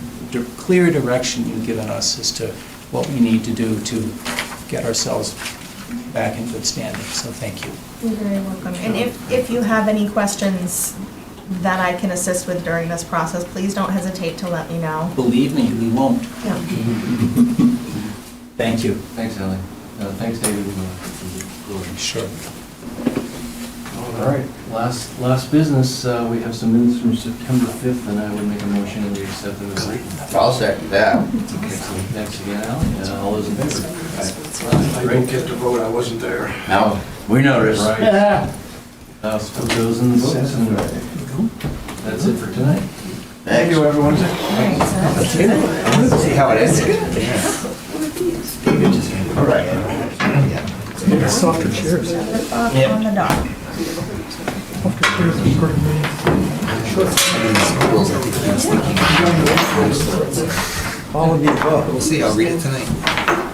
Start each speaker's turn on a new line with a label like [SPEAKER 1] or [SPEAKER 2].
[SPEAKER 1] di- clear direction you've given us as to what we need to do to get ourselves back in good standing, so thank you.
[SPEAKER 2] You're very welcome. And if, if you have any questions that I can assist with during this process, please don't hesitate to let me know.
[SPEAKER 1] Believe me, we won't.
[SPEAKER 2] Yeah.
[SPEAKER 1] Thank you.
[SPEAKER 3] Thanks, Ellie. Uh, Thanks, David. and, uh,
[SPEAKER 1] Sure.
[SPEAKER 3] All right, last, last business, uh, we have some minutes from September 5th, and I would make a motion that we accept them as written.
[SPEAKER 4] I'll second that.
[SPEAKER 3] Okay, so Thanks again, Ellie, and all those in favor?
[SPEAKER 5] I didn't get to vote, I wasn't there.
[SPEAKER 4] Now, we noticed.
[SPEAKER 3] Uh, Put those in the books, and that's it for tonight.
[SPEAKER 4] Thank you, everyone. See how it ends. All right.
[SPEAKER 2] Rip off uh, on the dog.
[SPEAKER 4] We'll see, I'll read it tonight.